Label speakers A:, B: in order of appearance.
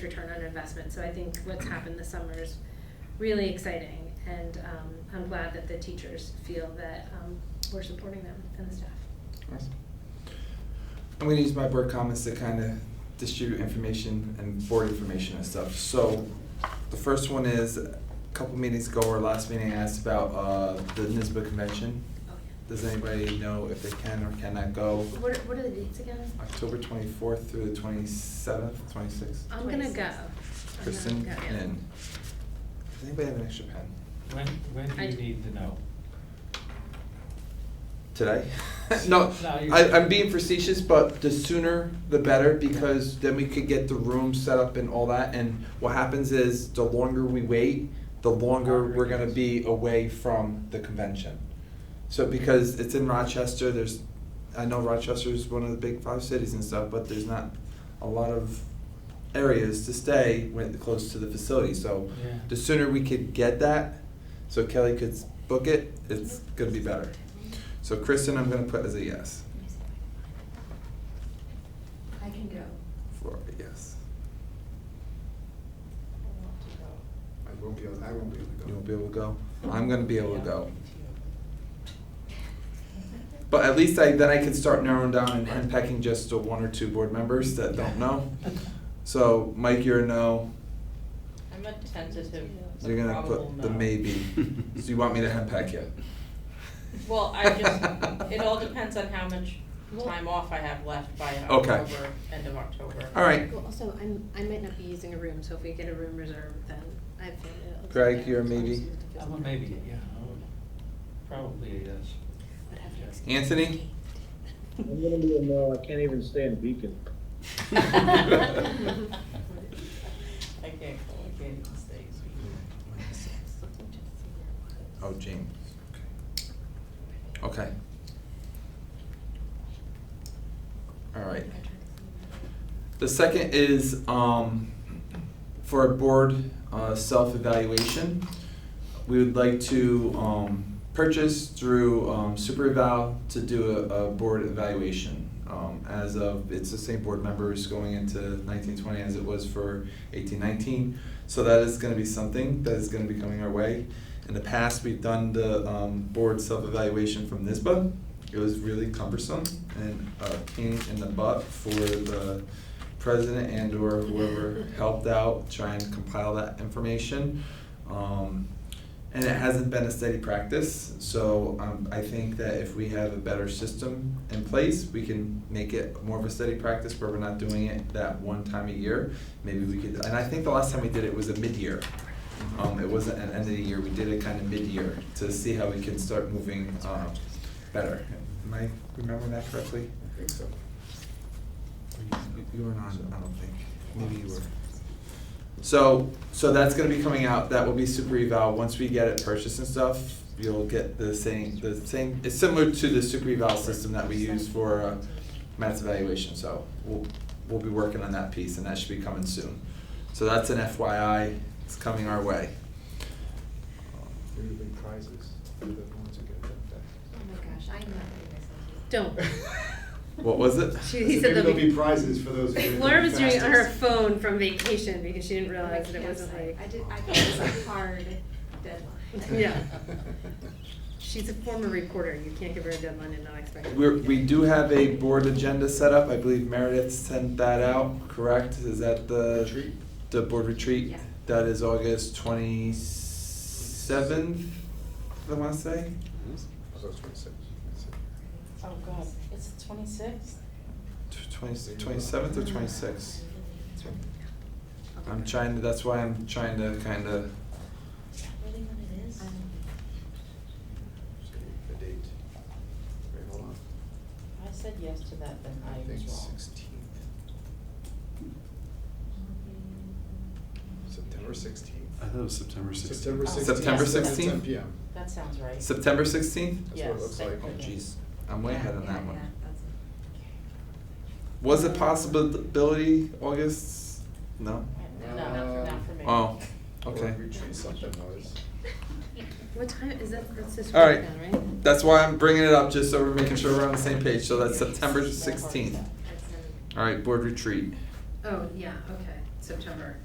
A: return on investment. So I think what's happened this summer is really exciting, and um, I'm glad that the teachers feel that um, we're supporting them and the staff.
B: Awesome. I'm gonna use my board comments to kind of distribute information and board information and stuff. So the first one is, a couple meetings ago or last meeting, I asked about uh, the NISBA convention.
A: Oh, yeah.
B: Does anybody know if they can or cannot go?
A: What, what are the dates again?
B: October twenty-fourth through the twenty-seventh, twenty-sixth.
A: I'm gonna go. I'm not
B: Kristen
A: go.
B: and, does anybody have an extra pen?
C: When, when do
A: I
C: you
A: do.
C: need to know?
B: today. no,
C: No, you-
B: I, I'm being facetious, but the sooner the better because then we could get the room set up and all that. And what happens is the longer we wait, the longer
C: Longer it
B: we're going to
C: is.
B: be away from the convention. So because it's in Rochester, there's, I know Rochester is one of the big five cities and stuff, but there's not a lot of areas to stay when close to the facility. So
C: Yeah.
B: the sooner we could get that, so Kelly could s- book it, it's going to be better. So Kristen, I'm gonna put as a yes.
A: Let me see if I
D: I can go.
B: For a yes.
E: I won't be able, I won't be able to go.
B: You won't be able to go? I'm gonna be able to go. But at least I, then I can start narrowing down and unpacking just the one or two board members that don't know. So Mike, you're a no.
F: I'm a tentative.
B: So You're gonna
F: probable
B: put the
F: no.
B: maybe. So you want me to unpack you?
F: Well, I just, it all depends on how much time off I have left by
B: Okay.
F: October, end of October.
B: All right.
A: can find it. Well, also, I'm, I might not be using a room, so if we get a room reserved, then I have family. that lives
B: Greg,
A: there,
B: you're a
A: so I'm
B: maybe?
A: just gonna have to
C: I'm a
A: visit.
C: maybe, yeah, I would- probably a yes.
A: Would have to excuse-
B: Anthony?
G: I'm gonna be a no, I can't even stand Beacon.
F: I can't call, I can't mistakes.
B: Oh, James. Okay. Okay. All right. The second is um, for a board uh, self-evaluation. We would like to um, purchase through um, Super Eval to do a, a board evaluation. Um, as of, it's the same board members going into nineteen twenty as it was for eighteen nineteen. So that is gonna be something that is gonna be coming our way. In the past, we've done the um, board self-evaluation from NISBA. It was really cumbersome and a pain in the butt for the president and or whoever helped out try and compile that information. Um, and it hasn't been a steady practice, so um, I think that if we have a better system in place, we can make it more of a steady practice where we're not doing it that one time a year. Maybe we could, and I think the last time we did it was a mid-year. Um, it wasn't an end of the year, we did it kind of mid-year to see how we can start moving, um, better. Am I remembering that correctly?
E: I think so.
B: You- You were not, I don't think. Maybe you were. So, so that's gonna be coming out, that will be super eval, once we get it purchased and stuff, you'll get the same, the same, it's similar to the super eval system that we use for uh, Matt's evaluation, so we'll, we'll be working on that piece, and that should be coming soon. So that's an FYI, it's coming our way.
E: There will be prizes for the ones who get
D: Oh my gosh, I'm not
A: Don't.
D: doing this.
E: that.
B: What was it?
A: She- he said
E: Maybe there'll
A: there'll be-
E: be prizes for those who get it the
A: Laura was doing it on her
E: fastest.
A: phone from vacation because she didn't
D: I'm
A: realize
D: like
A: that it wasn't
D: campsite.
A: like.
D: I did, I thought it was a hard deadline.
A: Yeah. She's a former reporter, you can't give her a deadline and not expect. her to
B: We're,
A: do
B: we
A: it.
B: do have a board agenda set up, I believe Meredith sent that out, correct? Is that the?
E: Retreat?
B: The board retreat?
D: Yeah.
B: That is August twenty-seventh, I wanna say?
E: So it's twenty-six.
F: Oh, God, is it twenty-sixth?
B: Tw- Twenty, twenty-seventh or twenty-sixth? I'm trying, to. that's why I'm trying to kinda,
F: Is that really what it is?
E: The date. Wait, hold on.
F: I said yes to that, then I was
E: think
F: wrong.
E: sixteenth. September sixteenth.
H: I thought it was September sixteenth.
E: September sixteenth.
B: September
E: At
B: 16th?
E: ten PM.
F: That sounds right.
B: September sixteenth?
E: That's what it
F: Yes,
E: looks
F: thank
E: like.
B: Oh
F: goodness.
B: jeez, I'm way ahead on that
D: Yeah,
B: one.
D: that's it.
B: Was it possibility August? No?
F: No, not for me.
B: Oh,
E: Or
B: okay.
E: Retreat something was.
A: What time is that, that's this
B: All
A: weekend,
B: right.
A: right?
B: That's why I'm bringing it up, just so we're making sure we're on the same page, so that's September
F: That part is
B: sixteenth.
F: that.
D: That's another-
B: All right, board retreat.
A: Oh, yeah, okay, so September